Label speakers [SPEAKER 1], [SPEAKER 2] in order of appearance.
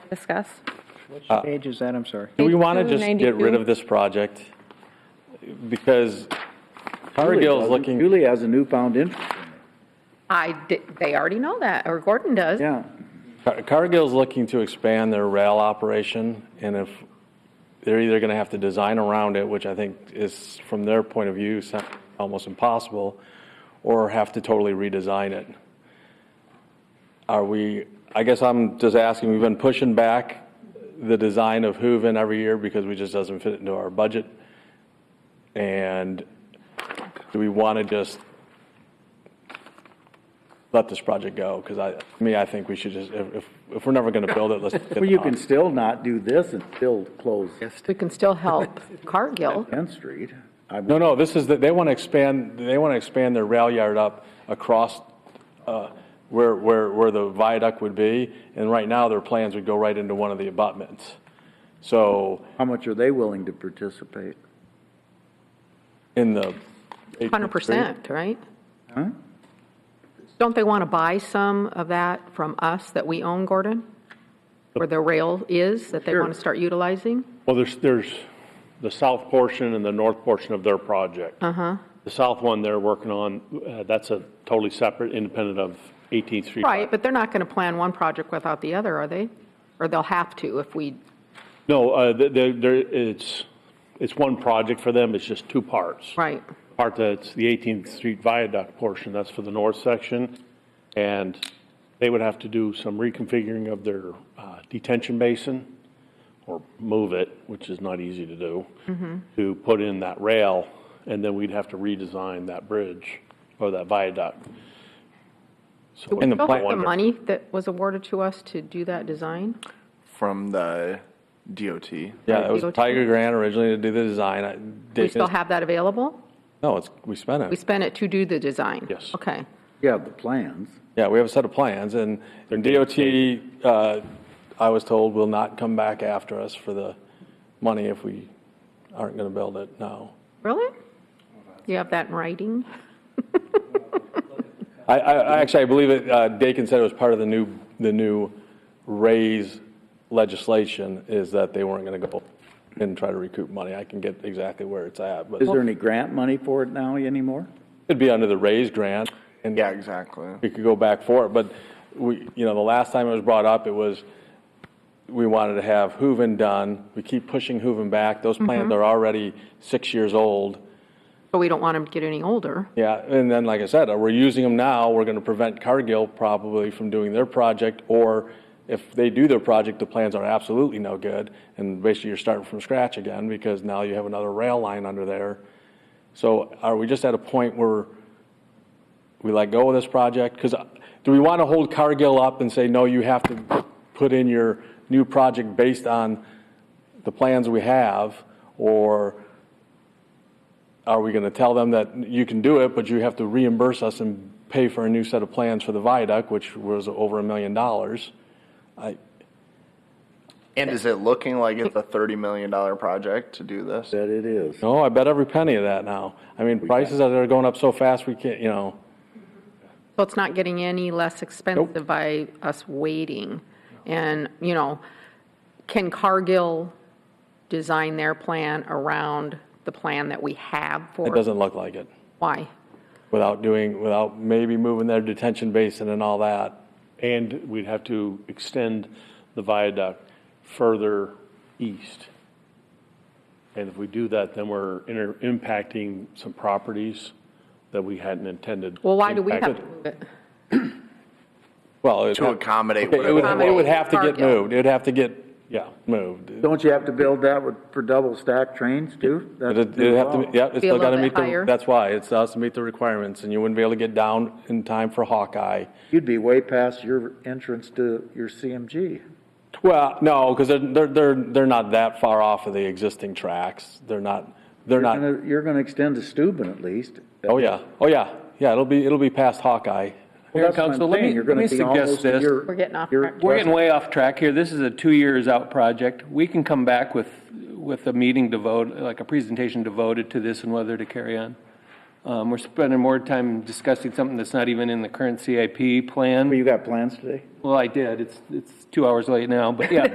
[SPEAKER 1] discuss?
[SPEAKER 2] Uh,
[SPEAKER 3] Page is that, I'm sorry.
[SPEAKER 1] Do
[SPEAKER 2] Do
[SPEAKER 1] we
[SPEAKER 2] we
[SPEAKER 1] Page
[SPEAKER 2] want
[SPEAKER 1] wanna
[SPEAKER 2] to
[SPEAKER 1] two, just
[SPEAKER 2] just
[SPEAKER 1] get
[SPEAKER 2] get
[SPEAKER 1] 92? rid
[SPEAKER 2] rid
[SPEAKER 1] of
[SPEAKER 2] of this project? Because Power
[SPEAKER 3] Julie
[SPEAKER 2] Gill's
[SPEAKER 3] does.
[SPEAKER 2] looking,
[SPEAKER 3] Julie has a newfound interest,
[SPEAKER 4] I, di- they already know that, or Gordon does.
[SPEAKER 3] yeah.
[SPEAKER 2] Car- Cargill's looking to expand their rail operation, and if, they're either going to have to design around it, which I think is, from their point of view, so- almost impossible, or have to totally redesign it. Are we, I guess I'm just asking, we've been pushing back the design of Hooven every year because we just doesn't fit into our budget. And do we want to just let this project go? Because I, me, I think we should just, if, if- if we're never going to build it, let's. get
[SPEAKER 3] Well, you
[SPEAKER 2] on.
[SPEAKER 3] can still not do this and still close
[SPEAKER 4] We can still help Cargill.
[SPEAKER 3] 10th Street. I
[SPEAKER 2] No, no, this is, the- they want to expand, they want to expand their rail yard up across uh, where, where, where the viaduct would be, and right now, their plans would go right into one of the abutments. So,
[SPEAKER 3] How much are they willing to participate?
[SPEAKER 2] in the.
[SPEAKER 4] 100%, right? Don't they want to buy some of that from us that we own, Gordon? Where the rail is, that they want to start utilizing?
[SPEAKER 5] Well, there's, there's the south portion and the north portion of their project. Uh-huh. The south one they're working on, uh, that's a totally separate, independent of 18th Street.
[SPEAKER 4] Right, but they're not going to plan one project without the other, are they? Or they'll have to if we,
[SPEAKER 5] No, uh, they- they're, they're, it's, it's one project for them, it's just two parts.
[SPEAKER 4] right,
[SPEAKER 5] Part that's the 18th Street Viaduct portion, that's for the north section. And they would have to do some reconfiguring of their uh, detention basin or move it, which is not easy to do, to put in that rail. And then we'd have to redesign that bridge or that viaduct.
[SPEAKER 4] do we
[SPEAKER 2] And the
[SPEAKER 4] still have
[SPEAKER 2] plan-
[SPEAKER 4] the money that was awarded to us to do that design?
[SPEAKER 6] from the DOT.
[SPEAKER 2] Yeah, it was
[SPEAKER 4] DOT.
[SPEAKER 2] Tiger Grant originally to do the design. I-
[SPEAKER 4] Do we still have that available?
[SPEAKER 2] No, it's, we spent
[SPEAKER 4] We
[SPEAKER 2] it.
[SPEAKER 4] spent it to do the design?
[SPEAKER 5] Yes.
[SPEAKER 4] Okay.
[SPEAKER 3] You have the plans.
[SPEAKER 2] Yeah, we have a set of plans, and and DOT, uh, I was told, will not come back after us for the money if we aren't going to build it now.
[SPEAKER 4] Really? You have that in writing?
[SPEAKER 2] I, I, I actually, I believe it, uh, Dakin said it was part of the new, the new raise legislation is that they weren't gonna go and try to recoup money. I can get exactly where it's at, but
[SPEAKER 3] Is there any grant money for it now anymore?
[SPEAKER 2] it'd be under the raise grant. and
[SPEAKER 6] Yeah, exactly.
[SPEAKER 2] We could go back for it, but we, you know, the last time it was brought up, it was, we wanted to have Hooven done. We keep pushing Hooven back. Those plans are already six years old.
[SPEAKER 4] But we don't want them to get any older.
[SPEAKER 2] Yeah, and then, like I said, uh, we're using them now, we're gonna prevent Cargill probably from doing their project, or if they do their project, the plans are absolutely no good, and basically you're starting from scratch again, because now you have another rail line under there. So are we just at a point where we let go of this project? Because do we wanna hold Cargill up and say, no, you have to put in your new project based on the plans we have, or are we going to tell them that you can do it, but you have to reimburse us and pay for a new set of plans for the viaduct, which was over a million dollars? I,
[SPEAKER 6] And is it looking like it's a $30 million project to do this?
[SPEAKER 3] That it is.
[SPEAKER 2] no, I bet every penny of that now. I mean, prices are they're going up so fast, we can't, you know,
[SPEAKER 4] So it's not getting any less expensive by us waiting. And, you know, can Cargill design their plan around the plan that we have for?
[SPEAKER 2] it doesn't look like it.
[SPEAKER 4] Why?
[SPEAKER 2] Without doing, without maybe moving their detention basin and all that.
[SPEAKER 5] And we'd have to extend the viaduct further east. And if we do that, then we're inter- impacting some properties that we hadn't intended.
[SPEAKER 4] Well, why do we have
[SPEAKER 5] impacted.
[SPEAKER 4] to move it?
[SPEAKER 2] Well, it
[SPEAKER 6] To accommodate
[SPEAKER 2] Okay, it would,
[SPEAKER 6] whatever.
[SPEAKER 2] it would have to get
[SPEAKER 4] Cargill.
[SPEAKER 2] moved. It would have to get
[SPEAKER 5] Yeah.
[SPEAKER 2] moved.
[SPEAKER 3] Don't you have to build that with, for double stack trains too? That's
[SPEAKER 2] It'd it'd have to, yeah, it's
[SPEAKER 4] Be a
[SPEAKER 2] still
[SPEAKER 4] little
[SPEAKER 2] got to
[SPEAKER 4] bit
[SPEAKER 2] meet the,
[SPEAKER 4] higher.
[SPEAKER 2] that's why, it's has to meet the requirements, and you wouldn't be able to get down in time for Hawkeye.
[SPEAKER 3] You'd be way past your entrance to your CMG.
[SPEAKER 2] Well, no, because they're, they're, they're, they're not that far off of the existing tracks. They're not, they're
[SPEAKER 3] You're
[SPEAKER 2] not,
[SPEAKER 3] gonna- You're gonna extend to Steuben at least.
[SPEAKER 2] oh, yeah, oh, yeah, yeah, it'll be, it'll be past Hawkeye.
[SPEAKER 3] Well, that's what I'm
[SPEAKER 7] Council, let me-
[SPEAKER 3] saying. You're gonna
[SPEAKER 7] let me
[SPEAKER 3] be
[SPEAKER 7] suggest
[SPEAKER 3] almost
[SPEAKER 7] this.
[SPEAKER 3] your-
[SPEAKER 4] We're getting off
[SPEAKER 3] your
[SPEAKER 4] track.
[SPEAKER 7] We're getting way off track here. This is a two years out project. We can come back with, with a meeting devoted, like a presentation devoted to this and whether to carry on. Um, we're spending more time discussing something that's not even in the current CIP
[SPEAKER 3] Well,
[SPEAKER 7] plan.
[SPEAKER 3] You got plans today?
[SPEAKER 7] Well, I did. It's, it's two hours late now, but yeah.